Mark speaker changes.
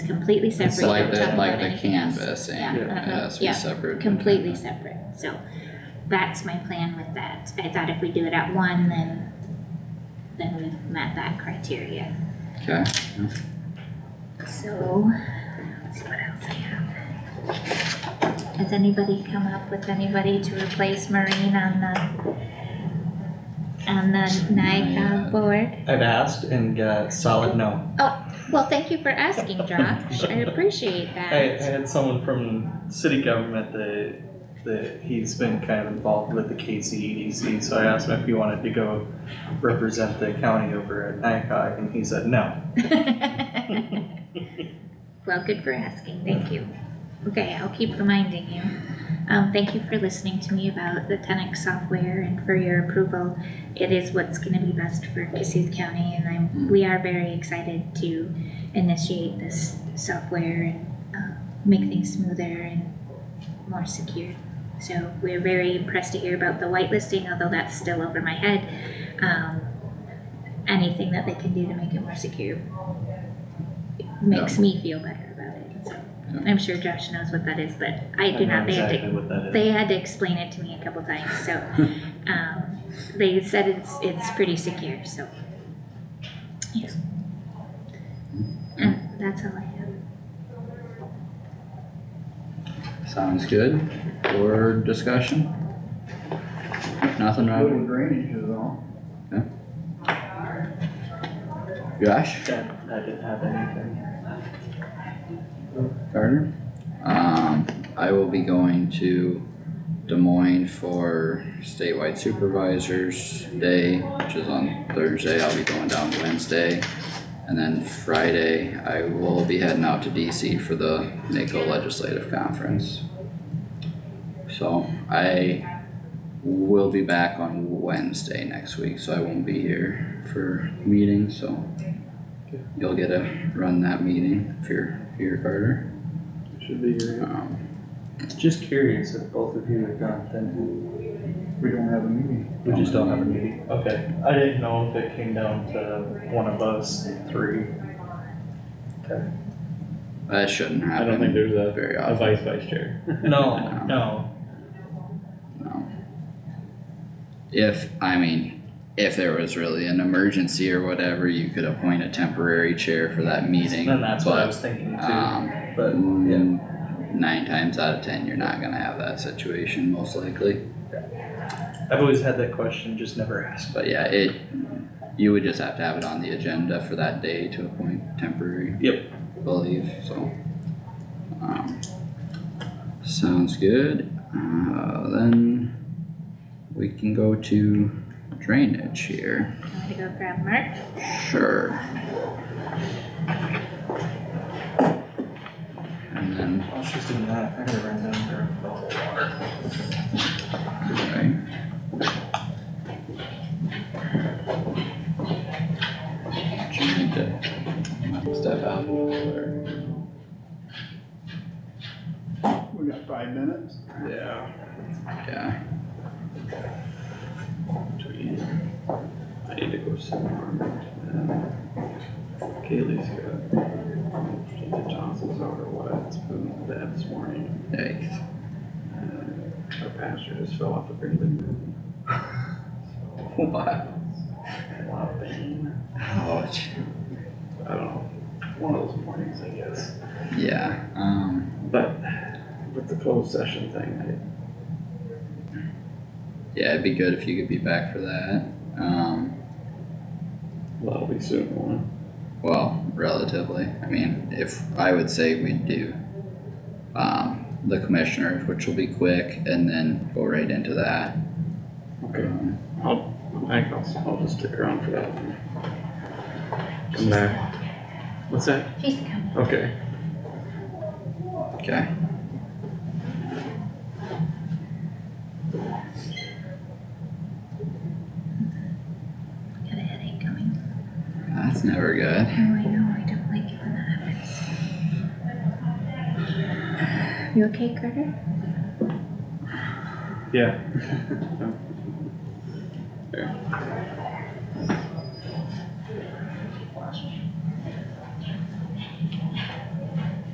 Speaker 1: completely separate.
Speaker 2: It's like
Speaker 1: Don't talk
Speaker 2: that, like
Speaker 1: about
Speaker 2: the
Speaker 1: anything else.
Speaker 2: canvassing,
Speaker 1: Yeah, uh-huh,
Speaker 2: yes, we
Speaker 1: yeah,
Speaker 2: separate. the
Speaker 1: Completely
Speaker 2: canvas.
Speaker 1: separate, so that's my plan with that. I thought if we do it at one, then, then we've met that criteria.
Speaker 2: Okay,
Speaker 1: So, let's see what else I have. Has anybody come up with anybody to replace Marine on the, on the
Speaker 2: Yeah.
Speaker 1: NICA board?
Speaker 3: I've asked and got solid no.
Speaker 1: Well, thank you for asking, Josh. I appreciate
Speaker 3: I, I
Speaker 1: that.
Speaker 3: had someone from city government that, that he's been kind of involved with the KCEDC, so I asked him if he wanted to go represent the county over at NICOG, and he said no.
Speaker 1: Well, good for asking, thank you. Okay, I'll keep reminding you. Um, thank you for listening to me about the Tenex software and for your approval. It is what's gonna be best for Cassuth County and I'm, we are very excited to initiate this software and, uh, make things smoother and more secure. So we're very impressed to hear about the whitelisting, although that's still over my head. Um, anything that they can do to make it more secure makes me feel better about it. So I'm sure Josh knows what that is, but I do
Speaker 3: know
Speaker 1: not. They have to
Speaker 3: Exactly what that is.
Speaker 1: they had to explain it to me a couple times, so, um, they said it's, it's pretty secure, so. Yeah. And that's all I have.
Speaker 2: sounds good, board discussion? Nothing,
Speaker 4: Little
Speaker 2: Rob,
Speaker 4: drainage is all.
Speaker 2: Josh,
Speaker 3: That, that didn't have anything.
Speaker 2: Carter? Um, I will be going to Des Moines for statewide supervisors day, which is on Thursday, I'll be going down Wednesday. And then Friday, I will be heading out to DC for the NACO Legislative Conference. So I will be back on Wednesday next week, so I won't be here for meetings, so. You'll get to run that meeting if you're here, Carter.
Speaker 3: Should be great.
Speaker 2: Um,
Speaker 3: Just curious if both of you are gone, then
Speaker 4: We don't have a meeting.
Speaker 3: we just don't have a meeting. Okay, I didn't know if it came down to one of us three.
Speaker 2: that shouldn't
Speaker 5: I
Speaker 2: happen.
Speaker 5: don't think there's a,
Speaker 2: Very
Speaker 5: a
Speaker 2: often,
Speaker 5: vice vice chair.
Speaker 3: No, no,
Speaker 2: no. If, I mean, if there was really an emergency or whatever, you could appoint a temporary chair for that meeting,
Speaker 3: And that's what I was
Speaker 2: but,
Speaker 3: thinking too,
Speaker 2: um,
Speaker 3: but yeah,
Speaker 2: mm, nine times out of ten, you're not gonna have that situation most likely.
Speaker 3: I've always had that question, just never asked.
Speaker 2: But yeah, it, you would just have to have it on the agenda for that day to appoint temporary.
Speaker 3: Yep.
Speaker 2: Believe, so. Um, Sounds good, uh, then we can go to drainage here,
Speaker 1: I'm gonna go grab Mark.
Speaker 2: sure. And then,
Speaker 3: While she's doing that, I gotta run down there and fill the water.
Speaker 2: okay. Do you need to step out or?
Speaker 4: We got five minutes.
Speaker 3: Yeah.
Speaker 2: Yeah.
Speaker 5: I need to go somewhere. Kaylee's got the tonsils out or what, it's been bad this morning.
Speaker 2: Yikes.
Speaker 5: Our pastor just fell off the building.
Speaker 2: Wow.
Speaker 5: A lot of pain.
Speaker 2: Ouch.
Speaker 5: I don't know, one of those mornings, I guess.
Speaker 2: Yeah. Um.
Speaker 5: But with the closed session thing,
Speaker 2: Yeah, it'd be good if you could be back for that. Um.
Speaker 5: I- that'll be soon, won't it?
Speaker 2: Well, relatively. I mean, if I would say we'd do, um, the commissioners, which will be quick, and then go right into that. Um,
Speaker 5: Okay. I'll, I think I'll, I'll just stick around for that. one. Come back. What's that?
Speaker 1: She's coming.
Speaker 5: Okay.
Speaker 2: Okay.
Speaker 1: Got a headache coming.
Speaker 2: That's never good.
Speaker 1: Oh, I know, I don't like it when that happens. You okay, Carter?
Speaker 5: Yeah.